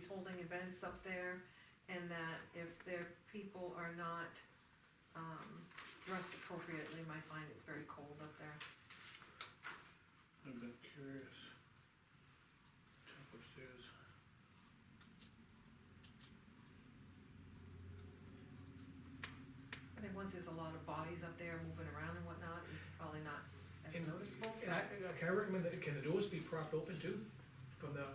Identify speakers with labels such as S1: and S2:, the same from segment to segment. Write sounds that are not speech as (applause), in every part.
S1: holding events up there, and that if their people are not, um, dressed appropriately, they might find it's very cold up there.
S2: I've been curious. Top upstairs.
S1: I think once there's a lot of bodies up there moving around and whatnot, it's probably not as
S3: And-
S1: noticeable.
S3: And I, can I recommend that, can the doors be propped open too, from the,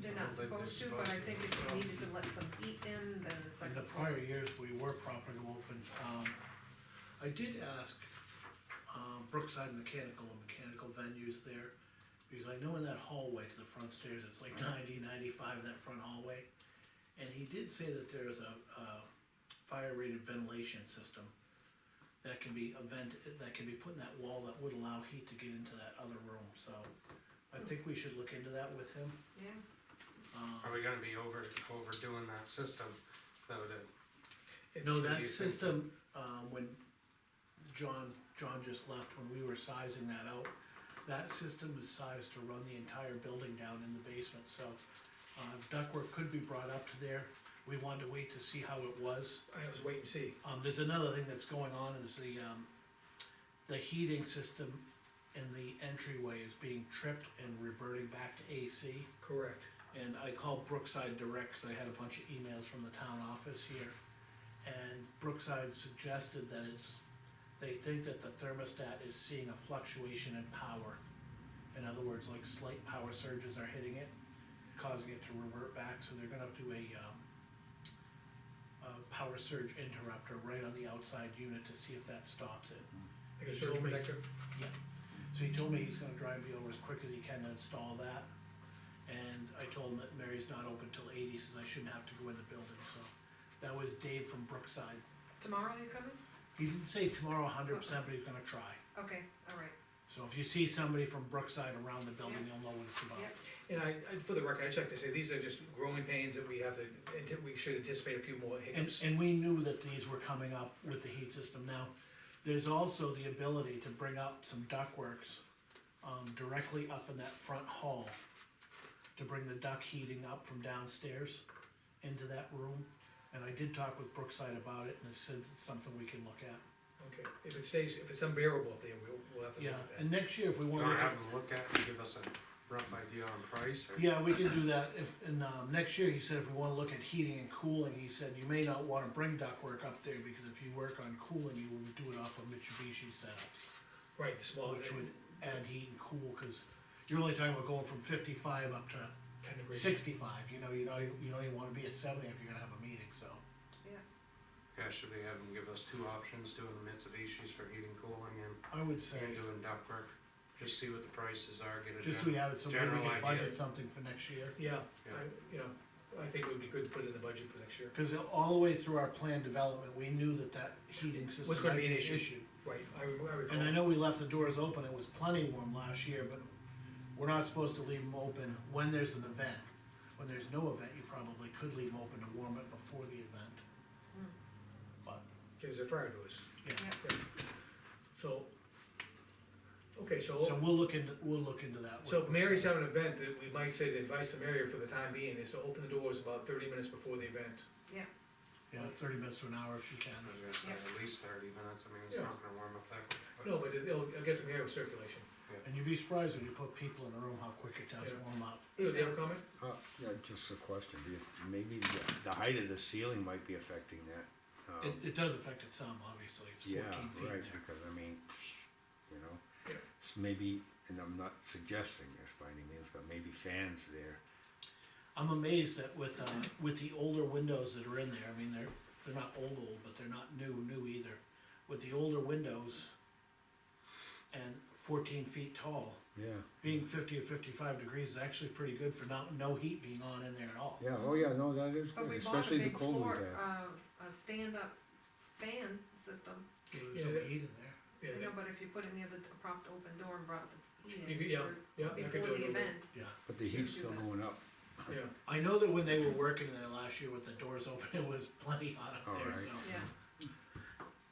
S1: They're not supposed to, but I think if you needed to let some heat in, then the
S2: In
S1: second.
S2: the prior years, we were properly open, um, I did ask, um, Brookside Mechanical and mechanical venues there, because I know in that hallway to the front stairs, it's like 90, 95 in that front hallway. And he did say that there is a, uh, fire rated ventilation system that can be a vent, that can be put in that wall that would allow heat to get into that other room, so I think we should look into that with him,
S1: Yeah,
S2: um.
S4: Are we gonna be over, overdoing that system though to
S3: it's,
S2: No,
S4: do
S2: that
S4: you think- uh,
S2: system, um, when John, John just left, when we were sizing that out, that system is sized to run the entire building down in the basement, so, uh, ductwork could be brought up to there. We wanted to wait to see how it was.
S3: I was waiting to see.
S2: Um, there's another thing that's going on is the, um, the heating system in the entryway is being tripped and reverting back to AC.
S3: Correct.
S2: And I called Brookside Direct, 'cause I had a bunch of emails from the town office here. And Brookside suggested that it's, they think that the thermostat is seeing a fluctuation in power. In other words, like slight power surges are hitting it, causing it to revert back, so they're gonna do a, um, a power surge interrupter right on the outside unit to see if that stops it.
S3: Like a surge protector,
S2: So he told me he's gonna drive me over as quick as he can to install that. And I told him that Mary's not open till eight, he says I shouldn't have to go in the building, so. That was Dave from Brookside.
S1: tomorrow he's coming?
S2: He didn't say tomorrow hundred percent, but he's gonna try.
S1: Okay, all right,
S2: So if you see somebody from Brookside around the building, you'll know what it's about.
S1: yeah,
S3: and I, I- for the record, I checked to say, these are just growing pains that we have to, and we should anticipate a few more
S2: And,
S3: hiccups.
S2: and we knew that these were coming up with the heat system. Now, there's also the ability to bring up some ductworks, um, directly up in that front hall. To bring the duct heating up from downstairs into that room. And I did talk with Brookside about it and they said it's something we can look at.
S3: Okay, if it stays, if it's unbearable up there, we'll, we'll have to look
S2: Yeah,
S3: at that.
S2: and next year if we
S4: do
S2: wanna. look at-
S4: have them look at and give us a rough idea on price or?
S2: Yeah, we can do that if, and, um, next year, he said if we wanna look at heating and cooling, he said you may not wanna bring ductwork up there because if you work on cooling, you will do it off of Mitsubishi setups.
S3: Right, the small,
S2: Which
S3: ten
S2: would add heat and cool, cause you're only talking about going from fifty-five up to
S3: degrees.
S2: sixty-five, you know, you know, you don't even wanna be at seventy if you're gonna have a meeting, so.
S4: Yeah, should we have them give us two options, doing the Mitsubishi's for heating, cooling and,
S2: I would say,
S4: and doing ductwork? Just see what the prices are, get a
S2: just so we
S4: general,
S2: have it, so maybe we
S4: general
S2: can
S4: idea.
S2: budget something for next year.
S3: Yeah,
S4: Yeah.
S3: I, you know, I think it would be good to put it in the budget for next year.
S2: Cause all the way through our plan development, we knew that that heating system.
S3: Was gonna
S2: might
S3: be an issue. Right, I, re- I recall.
S2: And I know we left the doors open, it was plenty warm last year, but we're not supposed to leave them open when there's an event. When there's no event, you probably could leave them open to warm it before the event. But,
S3: There's a fire doors.
S2: yeah,
S3: So, okay,
S2: so we'll look into, we'll look into that.
S3: So if Mary's having an event, that we might say the advice to Mary for the time being is to open the doors about thirty minutes before the event.
S1: yeah,
S2: Yeah, thirty minutes to an hour if she can.
S4: I was gonna say at least thirty minutes, I mean, it's
S3: Yeah.
S4: not gonna warm up that quick. but-
S3: No, but it'll, it'll get some air circulation.
S2: And you'd be surprised when you put people in a room how quick it does
S3: Yeah.
S2: warm up.
S3: Leo, do you have a comment?
S5: Uh, yeah, just a question, Do you- maybe the, the height of the ceiling might be affecting that.
S2: It,
S5: Um,
S2: it does affect it some, obviously, it's
S5: Yeah,
S2: fourteen feet in
S5: right,
S2: there.
S5: because I mean, you know,
S3: Yeah.
S5: s- maybe, and I'm not suggesting this by any means, but maybe fans there.
S2: I'm amazed that with, uh, with the older windows that are in there, I mean, they're, they're not old, old, but they're not new, new either. With the older windows and fourteen feet tall,
S5: Yeah,
S2: being fifty or fifty-five degrees is actually pretty good for not, no heat being on in there at all.
S5: yeah, oh yeah, no, that is
S1: but
S5: good,
S1: we bought a
S5: especially the
S1: big
S5: cold we've
S1: floor,
S5: had.
S1: uh, a stand-up fan system,
S2: There's no
S3: Yeah.
S2: heat in there.
S3: Yeah,
S1: I know, but if you put it near the propped open door and brought the heat
S3: You
S1: in
S3: could- yeah,
S1: for-
S3: yeah, I could do
S1: before
S3: it a
S1: the
S3: little bit.
S1: event,
S2: Yeah,
S5: But the
S1: should uh,
S5: heat's
S1: do
S5: still
S1: that.
S5: going up,
S3: yeah,
S2: I know that when they were working there last year with the doors (laughs) open, it was plenty hot up there,
S5: Alright.
S2: so.
S1: yeah.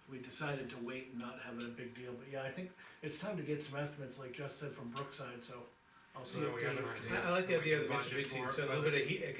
S2: we decided to wait and not have it a big deal, but yeah, I think it's time to get some estimates, like Jess said, from Brookside, so I'll see
S4: So
S2: if
S4: we have
S2: Dave
S4: an
S2: can.
S4: idea.
S3: I, I like the
S4: We
S3: idea of
S4: can
S3: the
S4: budget
S3: Mitsubishi,
S4: for it,
S3: so a little
S4: but-
S3: bit of heat,